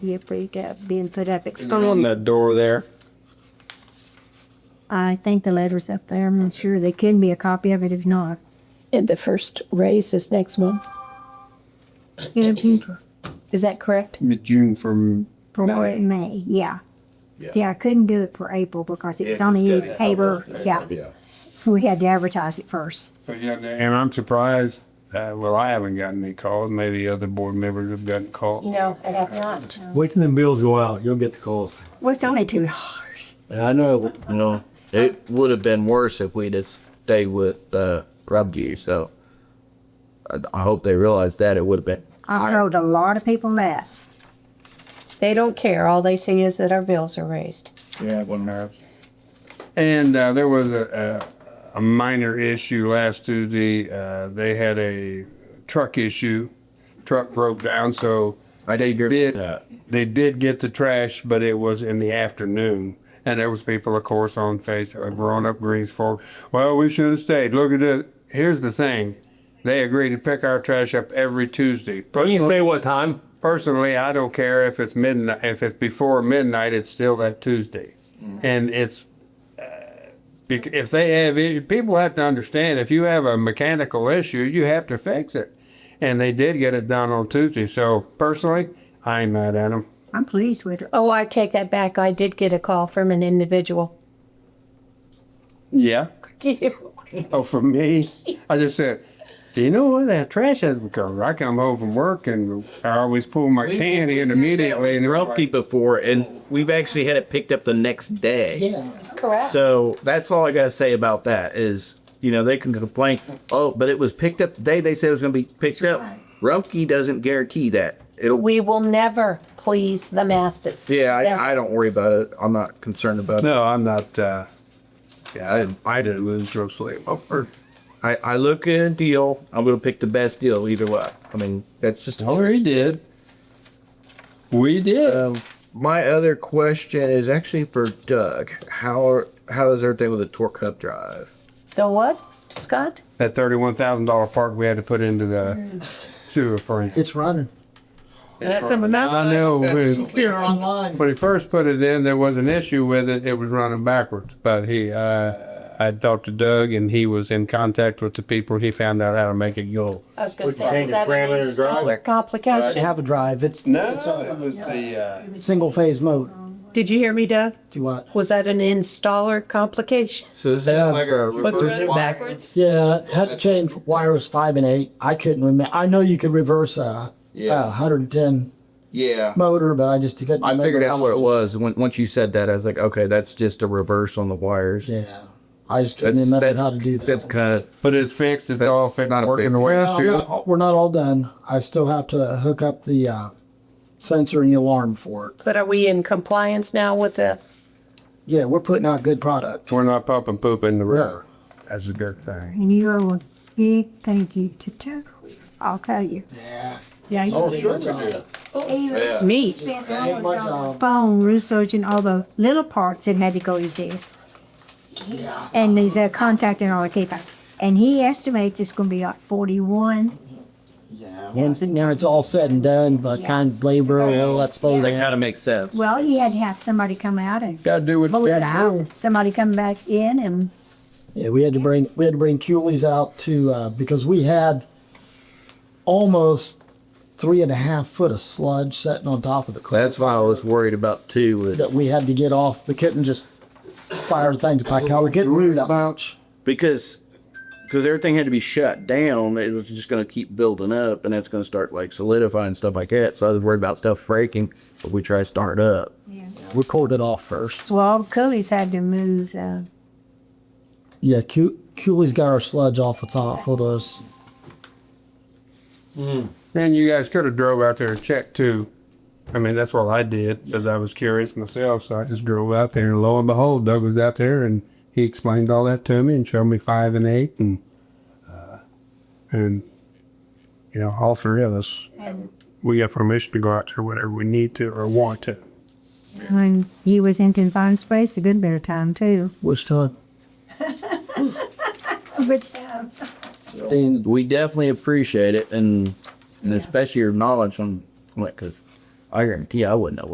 year break up being put up. It's And then on going, that door there, I think the letter's up there. I'm not sure. There can be a copy of it if not. And the first raise is next month. It'll be Is that correct? mid-June from for May, yeah. See, I couldn't do it for April because it was on the paper. Oh, Yeah. We had to advertise it first. And I'm surprised, uh, well, I haven't gotten any calls. Maybe other board members have gotten calls. No, I have not. Wait till the bills go out. You'll get the calls. Well, it's only two dollars. I know. You know, it would have been worse if we'd have stayed with uh, Robju. So I, I hope they realize that it would have been. I told a lot of people that. They don't care. All they see is that our bills are raised. Yeah, one nerve. And uh, there was a, a, a minor issue last Tuesday. Uh, they had a truck issue. Truck broke down, so I they agree with did. that. They did get the trash, but it was in the afternoon. And there was people, of course, on face uh, growing up Greens Fork. Well, we should have stayed. Look at this. Here's the thing. They agree to pick our trash up every Tuesday. You can Personally, say what time? personally, I don't care if it's midnight, if it's before midnight, it's still that Tuesday. And it's, uh, bec- if they have, i- people have to understand, if you have a mechanical issue, you have to fix it. And they did get it done on Tuesday. So personally, I ain't mad at them. I'm pleased with it. Oh, I take that back. I did get a call from an individual. Yeah. You. Oh, for me, I just said, do you know what that trash has become? I come home from work and I always pull my can in immediately and they're like, Before, and we've actually had it picked up the next day. Correct. So that's all I gotta say about that is, you know, they can complain, oh, but it was picked up the day they said it was gonna be picked up. Rumpke doesn't guarantee that. It'll, We will never please the masses. yeah, I, I don't worry about it. I'm not concerned about it. no, I'm not, uh, yeah, I didn't, I didn't lose drug sleep Oh, over. I, I look at a deal, I'm gonna pick the best deal either way. I mean, that's just. Oh, we did. We did. Um, my other question is actually for Doug. How are, how is everything with the torque hub drive? The what, Scott? that thirty-one thousand dollar part we had to put into the sewer frame. It's running. That's something I know. When, Here online. when he first put it in, there was an issue with it. It was running backwards. But he, uh, I talked to Doug, and he was in contact with the people. He found out how to make it go. I was gonna We can say, is change that the parameter an and installer I complication? have a drive. It's it's it a was the. Uh, single phase motor. Did you hear me, Doug? Do what? Was that an installer complication? So is that like a Was it reverse running wire? backwards? Yeah, had to change wires five and eight. I couldn't remember. I know you could reverse a, Yeah. a 110 Yeah. motor, but I just couldn't. I remember figured out how- what it was when once you said that. I was like, okay, that's just a reverse on the wires. Yeah, I just couldn't That's, remember that's how to do that. That's kind of but it's fixed. It's all fixed. not a working big- the way it Well, should. we're not- we're not all done. I still have to hook up the uh, sensor and the alarm for it. But are we in compliance now with the, Yeah, we're putting out good product. We're not pumping poop in the river. That's a good thing. And you owe a big thank you to Tuck. I'll tell you. Yeah. yeah, you Oh, sure we do. it's me. Spent ain't my hours on the job. phone researching all the little parts that had to go with this. Yeah. And he's uh, contacting all the people. And he estimates it's gonna be like forty-one. Yeah. Once it, now it's all said and done, but kind of labor, well, that's supposed that to kind of makes sense. Well, he had to have somebody come out and Got to do what pull you it got to do. out. Somebody come back in and Yeah, we had to bring we had to bring Cooley's out to uh, because we had almost three and a half foot of sludge sitting on top of the cliff That's why I was worried about too. With, that we had to get off. We couldn't just fire things back out. We couldn't move that much. because because everything had to be shut down. It was just going to keep building up, and that's going to start like solidifying stuff like that. So I was worried about stuff breaking if we try to start up. We cooled it off first. so all the coolies had to move. Uh, Yeah, Coo- Cooley's got our sludge off the top for those. And you guys could have drove out there and checked too. I mean, that's what I did because I was curious myself. So I just drove out there, and lo and behold, Doug was out there, and he explained all that to me and showed me five and eight, and uh, and you know, all three of us, we got permission to go out there whenever we need to or want to. when he was in confined space, a good bit of time too. Which time? Which Sixteen- We definitely appreciate it, and and especially your knowledge on on it because I guarantee I wouldn't know